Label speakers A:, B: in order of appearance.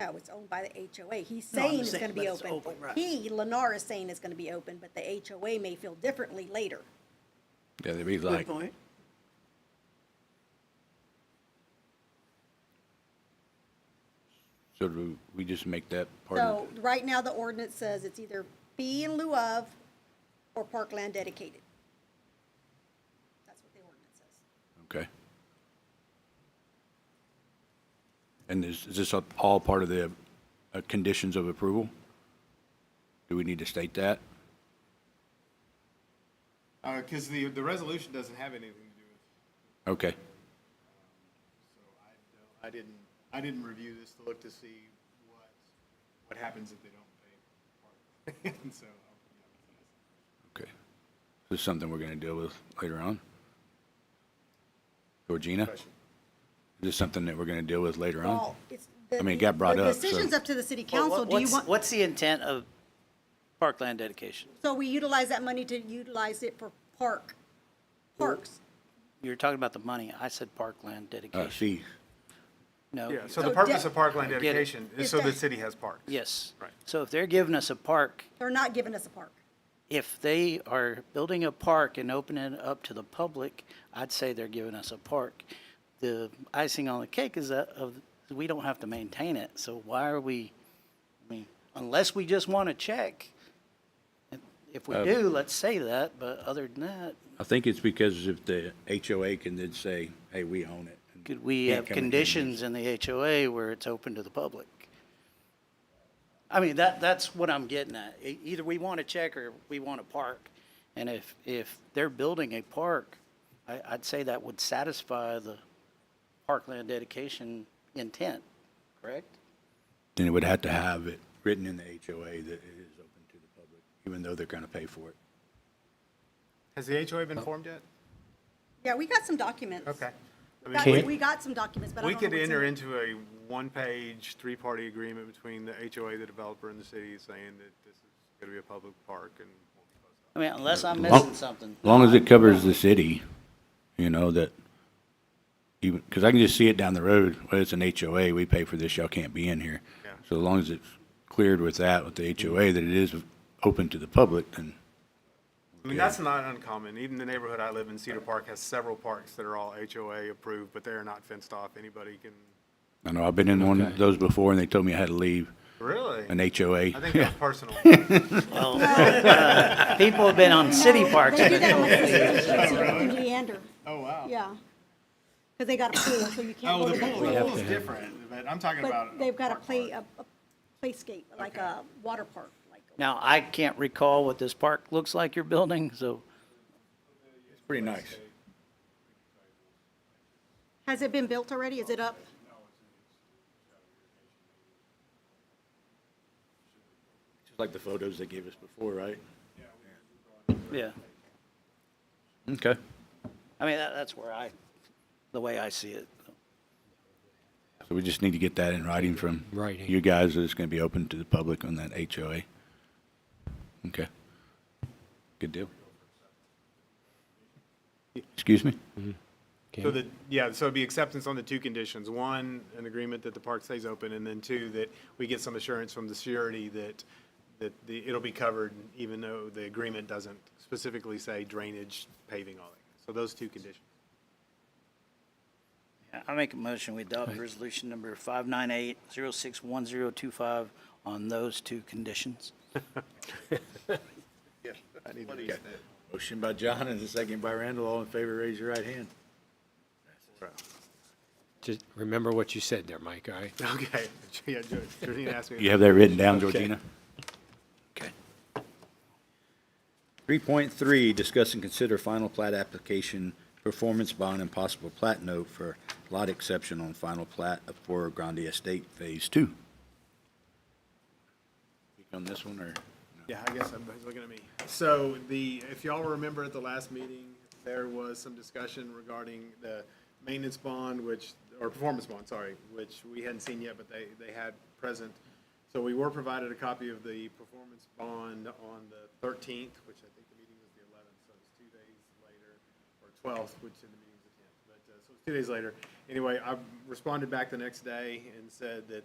A: Lefkow, it's owned by the HOA. He's saying it's
B: saying,
A: gonna
B: but
A: be
B: it's
A: open.
B: open, right.
A: He, Lennar is saying it's gonna be open, but the HOA may feel differently later.
C: Yeah, they'd be
B: Good
C: like,
B: point.
C: so do we just make that part of
A: So, right now, the ordinance says it's either fee in lieu of or parkland dedicated. That's what the ordinance says.
C: Okay. And is, is this a- all part of the uh, conditions of approval? Do we need to state that?
D: Because Uh, the, the resolution doesn't have anything to do with,
C: Okay,
D: I didn't, I didn't review this to look to see what, what happens if they don't pay. And so,
C: okay. This is something we're gonna deal with later on? Georgina? Is this something that we're gonna deal with later on?
A: Well, it's. the-
C: I mean, it got brought
A: the
C: up, so-
A: Decision's up to the city
B: Well,
A: council.
B: what-
A: Do you
B: what's-
A: want,
B: What's the intent of parkland dedication?
A: so we utilize that money to utilize it for park, parks.
B: You were talking about the money. I said parkland
C: Uh,
B: dedication.
C: see,
B: No.
E: Yeah, so
A: So
E: the purpose
A: de-
E: of parkland
B: I get it.
E: dedication
A: Is
E: is so the
A: that-
E: city has parks.
B: Yes.
E: Right.
B: So if they're giving us a park,
A: They're not giving us a park.
B: if they are building a park and opening it up to the public, I'd say they're giving us a park. The icing on the cake is that of, we don't have to maintain it, so why are we, I mean, unless we just want to check. If
C: Um,
B: we do, let's say that, but other than that,
C: I think it's because if the HOA can then say, hey, we own it. and
B: could we
C: can't
B: have
C: come in here and
B: conditions in the HOA where it's open to the public? I mean, that, that's what I'm getting at. E- Either we want to check or we want a park. And if, if they're building a park, I, I'd say that would satisfy the parkland dedication intent, correct?
C: Then it would have to have it written in the HOA that it is open to the public, even though they're gonna pay for it.
D: has the HOA been formed yet?
A: Yeah, we got some documents.
E: Okay. I mean,
A: Got- We got some documents, but I
E: We
A: don't know
E: could
A: what's in
E: enter
A: it.
E: into a one-page, three-party agreement between the HOA, the developer, and the city saying that this is going to be a public park and we'll be closed
B: I mean, unless I'm
C: Well-
B: missing something.
C: As long as it covers the city, you know, that even, because I can just see it down the road, well, it's an HOA, we pay for this, y'all can't be in here.
E: Yeah.
C: So as long as it's cleared with that, with the HOA, that it is open to the public, then,
E: I mean, that's not uncommon. Even the neighborhood I live in, Cedar Park, has several parks that are all HOA approved, but they are not fenced off. Anybody can,
C: I know, I've been in one of those before and they told me I had to leave
E: really?
C: an HOA.
E: I think that's personal.
B: People have been on city parks.
A: Oh, They do
B: but-
A: that with the city in Leander,
D: Oh, wow.
A: yeah. Because they got a pool, so you can't
D: Oh,
A: go
D: the
A: to the
D: pool, the
A: pool.
D: pool's different, but I'm talking about.
A: But they've got a
D: park
A: play,
D: park.
A: a a playscape, like a water park, like.
B: Now, I can't recall what this park looks like you're building, so
C: Pretty nice.
A: Has it been built already? Is it up?
C: Just like the photos they gave us before, right?
B: yeah.
C: Okay.
B: I mean, that, that's where I, the way I see it.
C: So we just need to get that in writing from you guys, that it's gonna be open to the public on that HOA. Okay. Good deal. Excuse me?
D: So the, yeah, so it'd be acceptance on the two conditions. One, an agreement that the park stays open, and then two, that we get some assurance from the surety that, that the, it'll be covered, even though the agreement doesn't specifically say drainage, paving, all that. So those two conditions.
B: I make a motion, we adopt resolution number five nine eight zero six one zero two five on those two conditions.
C: Motion by John and a second by Randall. All in favor, raise your right hand.
F: Just remember what you said there, Mike, all right?
D: Okay, yeah, Jo- Georgina asked me.
C: You have that written down, Georgina? Okay. Three point three, discuss and consider final plat application, performance bond and possible plat note for lot exception on final plat of Foro Grande Estate Phase Two. Speak On this one, or?
D: Yeah, I guess everybody's looking at me. So the, if y'all remember at the last meeting, there was some discussion regarding the maintenance bond, which, or performance bond, sorry, which we hadn't seen yet, but they, they had present. So we were provided a copy of the performance bond on the thirteenth, which I think the meeting was the eleventh, so it's two days later, or twelfth, which in the meeting was the tenth. But, uh, so it's two days later. Anyway, I responded back the next day and said that